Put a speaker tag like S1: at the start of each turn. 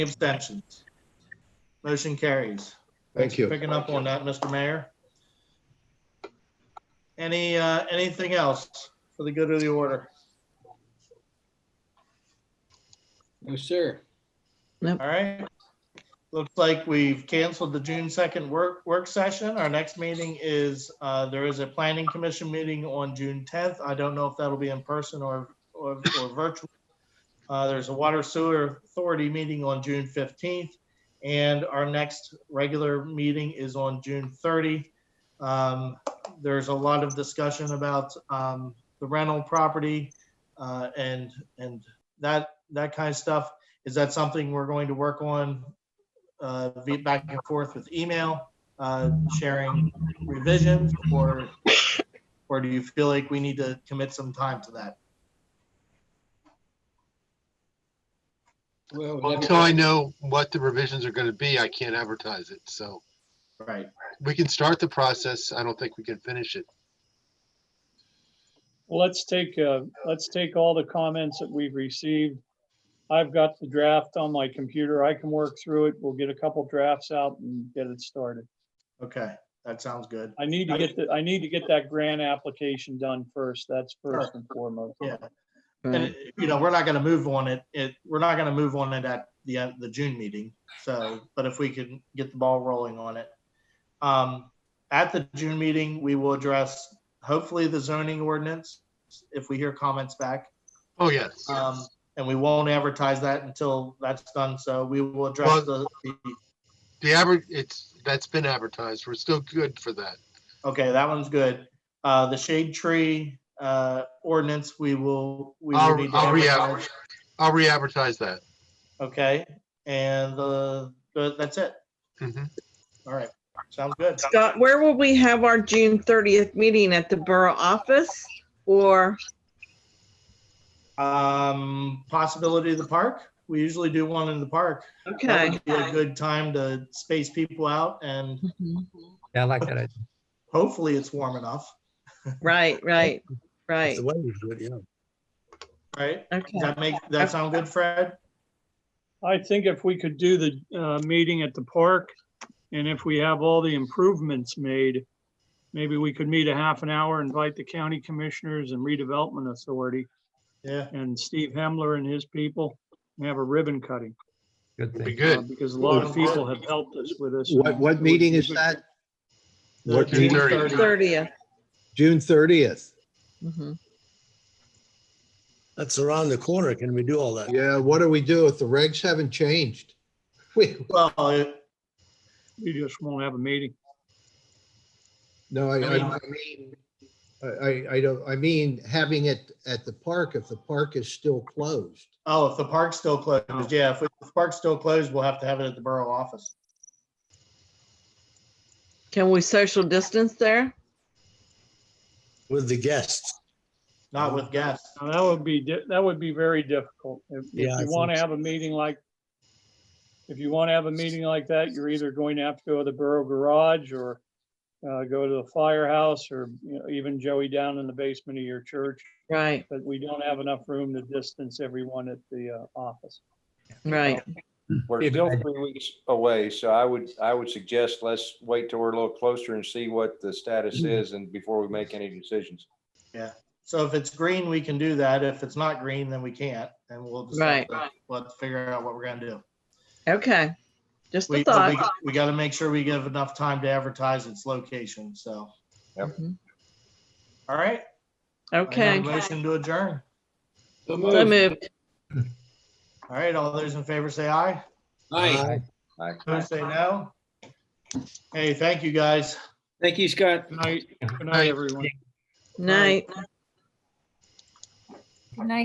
S1: abstentions? Motion carries.
S2: Thank you.
S1: Picking up on that, Mr. Mayor. Any, uh, anything else for the good of the order?
S3: No, sir.
S1: All right. Looks like we've canceled the June second work, work session. Our next meeting is, uh, there is a planning commission meeting on June tenth. I don't know if that'll be in person or, or, or virtual. Uh, there's a water sewer authority meeting on June fifteenth. And our next regular meeting is on June thirty. Um, there's a lot of discussion about, um, the rental property, uh, and, and that, that kind of stuff. Is that something we're going to work on uh, via back and forth with email, uh, sharing revisions? Or, or do you feel like we need to commit some time to that?
S3: Well,
S4: Well,
S3: let me-
S4: Until I know what the revisions are going to be, I can't advertise it. So
S1: Right.
S4: we can start the process. I don't think we can finish it.
S5: Well, let's take, uh, let's take all the comments that we've received. I've got the draft on my computer. I can work through it. We'll get a couple drafts out and get it started.
S1: Okay, that sounds good.
S5: I need to get, the- I need to get that grant application done first. That's first and foremost.
S1: Yeah. And, you know, we're not going to move on it, it, we're not going to move on it at the, uh, the June meeting. So, but if we can get the ball rolling on it. Um, At the June meeting, we will address hopefully the zoning ordinance, if we hear comments back.
S4: Oh, yes.
S1: Um, and we won't advertise that until that's done, so we will address the, the-
S4: The average, it's, that's been advertised. We're still good for that.
S1: okay, that one's good. Uh, the shade tree, uh, ordinance, we will, we will need
S4: I'll,
S1: to
S4: I'll re,
S1: advertise,
S4: I'll re-advertise that.
S1: okay? And the, the- that's it,
S4: Mhm.
S1: all right, sounds good.
S6: Scott, where will we have our June thirtieth meeting? At the borough office or,
S1: Um, possibility of the park, we usually do one in the park. That
S6: okay.
S1: would be a good time to space people out, and
S6: Mhm.
S7: Yeah, I like that. idea.
S1: hopefully it's warm enough,
S6: Right, right, right.
S7: The weather's good, yeah.
S1: right?
S6: Okay.
S1: Does that make, that sound good, Fred?
S5: I think if we could do the, uh, meeting at the park and if we have all the improvements made, maybe we could meet a half an hour, invite the county commissioners and redevelopment authority
S1: Yeah.
S5: and Steve Hemler and his people and have a ribbon cutting.
S7: Good
S4: It'd be
S7: thing.
S5: uh,
S4: good.
S5: Because a lot
S1: Well,
S5: of people have helped us with this.
S2: What, what meeting is that? What
S1: June
S4: meeting?
S1: 30th.
S6: Thirtieth. Mm-hmm.
S2: June 30th.
S7: That's around the corner. Can we do all that?
S2: Yeah, what do we do if the regs haven't changed? We,
S1: Well, it-
S5: We just won't have a meeting.
S2: no, I, I I mean, I, I- I don't, I mean, having it at the park if the park is still closed.
S1: oh, if the park's still closed, yeah, if the park's still closed, we'll have to have it at the borough office.
S6: Can we social distance there?
S7: With the guests.
S1: Not with guests.
S5: Now, that would be, di- that would be very difficult. If if
S7: Yeah, I
S5: you want to
S7: think so.
S5: have a meeting like, if you want to have a meeting like that, you're either going to have to go to the Borough Garage or uh, go to the firehouse or, you know, even Joey down in the basement of your church.
S6: Right,
S5: But we don't have enough room to distance everyone at the uh, office.
S6: right.
S8: We're
S7: Yeah,
S8: still
S7: but I-
S8: three weeks away, so I would, I would suggest let's wait till we're a little closer and see what the status is and before we make any decisions.
S1: So if it's green, we can do that. If it's not green, then we can't, and we'll just have
S6: Right.
S1: to- we'll have to figure out what we're gonna do.
S6: Okay. Just a
S1: We, but we,
S6: thought.
S1: we gotta make sure we give enough time to advertise its location, so.
S8: Yep.
S6: Mhm.
S1: All right. I have a
S6: Okay.
S1: Motion to adjourn.
S3: So
S6: So
S3: moved.
S6: moved.
S1: All right, all those in favor say aye.
S3: Aye.
S8: Aye.
S1: Those say no. Hey, thank you, guys.
S3: Thank you, Scott.
S5: Good night, good
S4: Aye.
S5: night, everyone.
S6: Night.
S9: Good night.